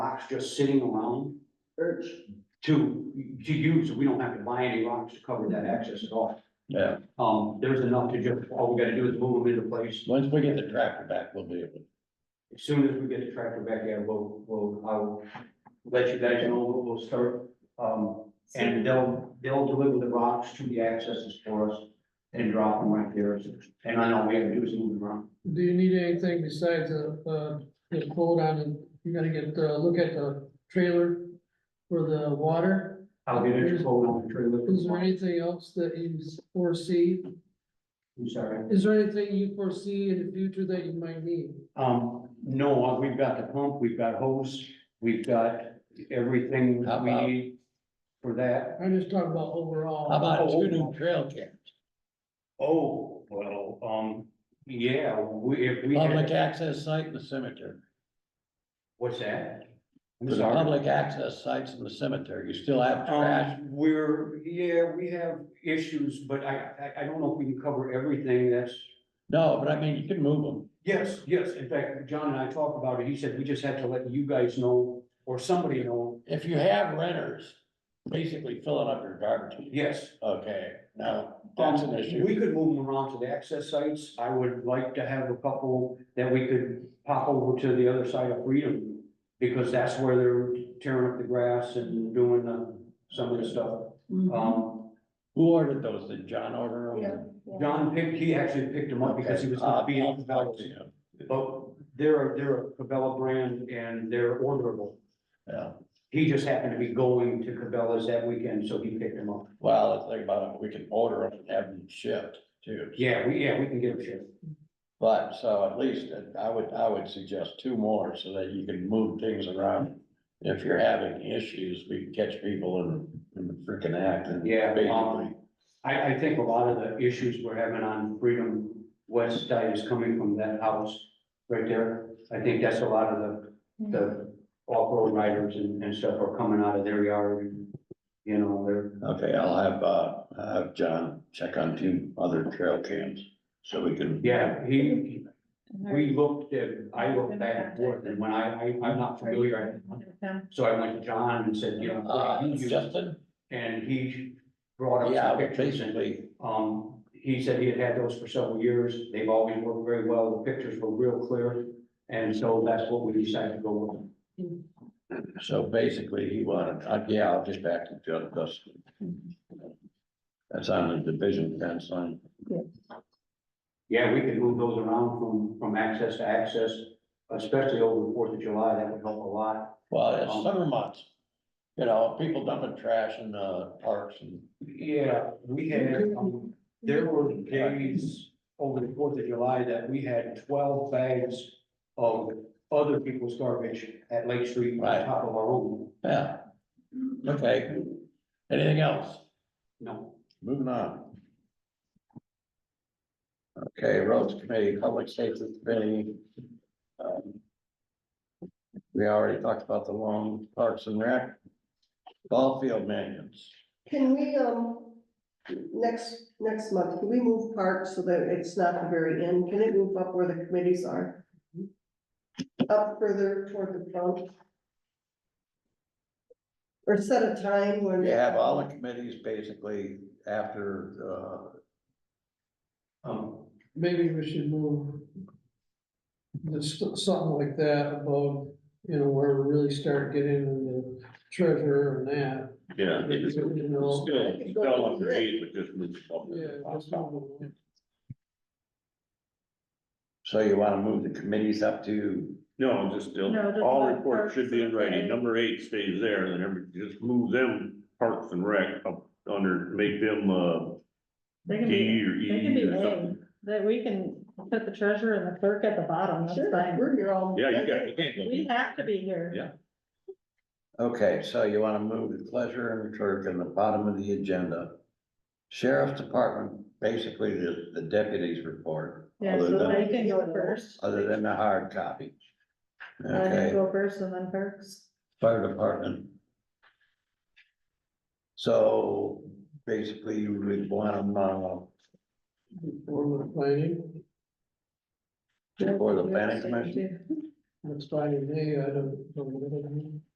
rocks just sitting around Urge. to, to use. We don't have to buy any rocks to cover that access at all. Yeah, Um, there's enough to just, all we gotta do is move them into place. once we get the tractor back, we'll be able, to- As soon as we get the tractor back, yeah, we'll, we'll, I'll let you guys know, we'll, we'll start. Um, and they'll, they'll deliver the rocks to the accesses for us and drop them right there. And I know we have to do is move them around. Do you need anything besides a, uh, the quote on, it? you gotta get, uh, look at the trailer for the water? I'll get it to hold on the trailer. Is there anything else that you foresee? I'm sorry. Is there anything you foresee in the future that you might need? Um, no, we've got the pump, we've got hose, we've got everything How we about- need for that. I'm just talking about overall. how about two new trail cams, Oh, well, um, yeah, we, if we. had- public access site in the cemetery. What's that? I'm For the sorry. public access sites in the cemetery, you still have trash, Um, we're, yeah, we have issues, but I, I, I don't know if we can cover everything that's. no, but I mean, you can move them, Yes, yes, in fact, John and I talked about it, he said we just had to let you guys know, or somebody know, if you have renters, basically filling up your garbage. yes. Okay, now, that's Um, an we issue, could move them around to the access sites, I would like to have a couple that we could pop over to the other side of Freedom. Because that's where they're tearing up the grass and doing the, some of the stuff, um. who ordered those, did John order them? John picked, he actually picked them up because he was Okay, Uh, I'll- not being I'll talk about to him. But they're, they're a Cabela brand and they're orderable. Yeah, He just happened to be going to Cabela's that weekend, so he picked them up. well, let's think about it, we can order them and have them shipped too, Yeah, we, yeah, we can get them shipped. but, so at least, uh, I would, I would suggest two more, so that you can move things around. If you're having issues, we can catch people in, in the freaking act and. Yeah, Basically, um, I, I think a lot of the issues we're having on Freedom West side is coming from that house right there. I think that's a lot of the, the off-road riders and, and stuff are coming out of their yard. and, You know, they're, okay, I'll have, uh, I'll have John check on two other trail cams, so we can. yeah, he, We looked at, I looked back and forth, and when I, I, I'm not familiar, I- so I went to John and said, you know, what Uh, do you use? Justin, and he brought up yeah, some pictures, and, basically, um, he said he had had those for several years, they've always worked very well, the pictures were real clear, and so that's what we decided to go with. so basically, he wanted, uh, yeah, I'll get back to John, Justin. That's on the division fence line. Yeah, we could move those around from, from access to access, especially over the Fourth of July, that would help a lot. Well, it's Um, summer months, you know, people dumping trash in the parks and, Yeah, we had, um, There were days over the Fourth of July that we had twelve bags of other people's garbage at Lake Street Right. on top of our own. yeah. Okay, anything else? No, Moving on. Okay, roads committee, public safety committee. um, We already talked about the long parks and rec. Ball field minions, Can we, um, next, next month, can we move parks so that it's not the very end? Can it move up where the committees are? Up further toward the front? Or set a time when. we have all the committees basically after, uh, um, Maybe we should move this, something like that about, you know, where we really start getting into the treasure and that. uh. Yeah. You know, it's still up to eight, but just move yeah, just move it. So you wanna move the committees up to, No, just still, No, just all about reports should be in parks and writing, rec. number eight stays there, and then every, just move them parks and rec up under, make them, uh. They can D be, or they can E be or something. named, that we can put the treasurer and the clerk at the bottom, that's Sure, fine. we're here all. Yeah, you got, you can't We go. have to be here. Yeah. okay, so you wanna move the pleasure and clerk in the bottom of the agenda. Sheriff's Department, basically the, the deputies report, Yeah, Other so than- they can go first. other than the hard copy. I can Okay, go first and then perks. fire department. So basically you would want them, uh, Or we're planning. before the planning commission, next Friday, May, I don't, know what I mean.